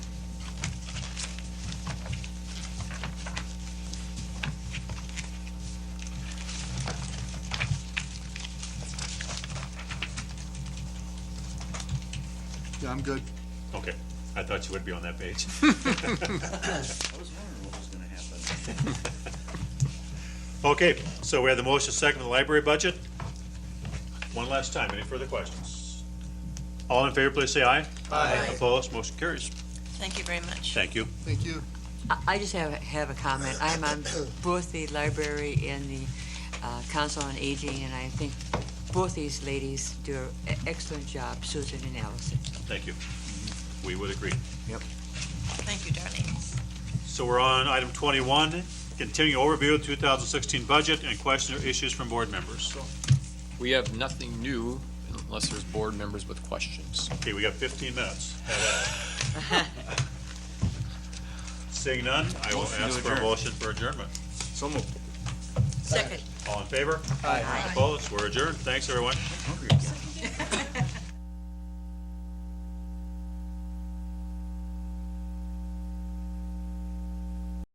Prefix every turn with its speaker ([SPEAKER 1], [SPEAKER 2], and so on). [SPEAKER 1] I'm good.
[SPEAKER 2] Okay, I thought you would be on that page.
[SPEAKER 3] I was wondering what was gonna happen.
[SPEAKER 2] Okay, so we have the motion second for the library budget. One last time, any further questions? All in favor, please say aye. Aye. Opposed, motion carries.
[SPEAKER 4] Thank you very much.
[SPEAKER 2] Thank you.
[SPEAKER 1] Thank you.
[SPEAKER 5] I- I just have, have a comment. I'm on both the library and the uh, Council on Aging, and I think both these ladies do an excellent job, Susan and Allison.
[SPEAKER 2] Thank you. We would agree.
[SPEAKER 4] Thank you, darling.
[SPEAKER 2] So we're on item twenty-one, continue overview of two thousand sixteen budget and question or issues from board members.
[SPEAKER 6] We have nothing new unless there's board members with questions.
[SPEAKER 2] Okay, we got fifteen minutes. Have at it. Seeing none, I will
[SPEAKER 3] Motion to
[SPEAKER 2] ask for a
[SPEAKER 3] adjourn.
[SPEAKER 2] motion for adjournment.
[SPEAKER 3] So moved.
[SPEAKER 5] Second.
[SPEAKER 2] All in favor?
[SPEAKER 4] Aye.
[SPEAKER 2] Opposed? We're adjourned. Thanks, everyone.
[SPEAKER 3] Hungry again.